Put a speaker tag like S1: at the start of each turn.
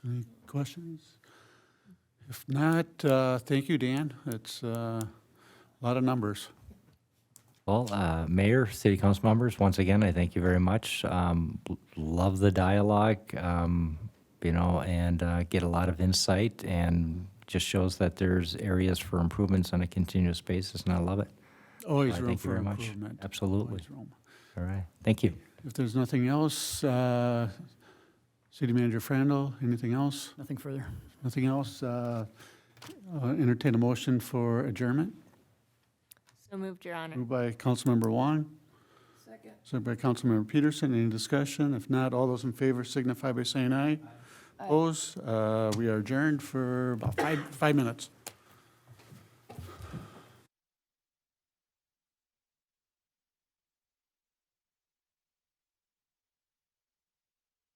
S1: questions? If not, uh, thank you, Dan. It's uh, a lot of numbers.
S2: Well, uh, Mayor, City Council members, once again, I thank you very much. Um, l- Love the dialogue, um, you know, and uh, get a lot of insight and just shows that there's areas for improvements on a continuous basis, and I love it.
S1: Always
S2: All right,
S1: room
S2: thank you
S1: for
S2: very much.
S1: improvement.
S2: Absolutely.
S1: Always room.
S2: All right, thank you.
S1: If there's nothing else, uh, City Manager Frandl, anything else?
S3: Nothing further.
S1: Nothing else? Uh, uh, Entertain a motion for adjournment,
S4: So moved, Your Honor.
S1: moved by Councilmember Wong. Second. Second by Councilmember Peterson. Any discussion? If not, all those in favor signify by saying aye. Opposed? Uh, We are adjourned for about five, five minutes.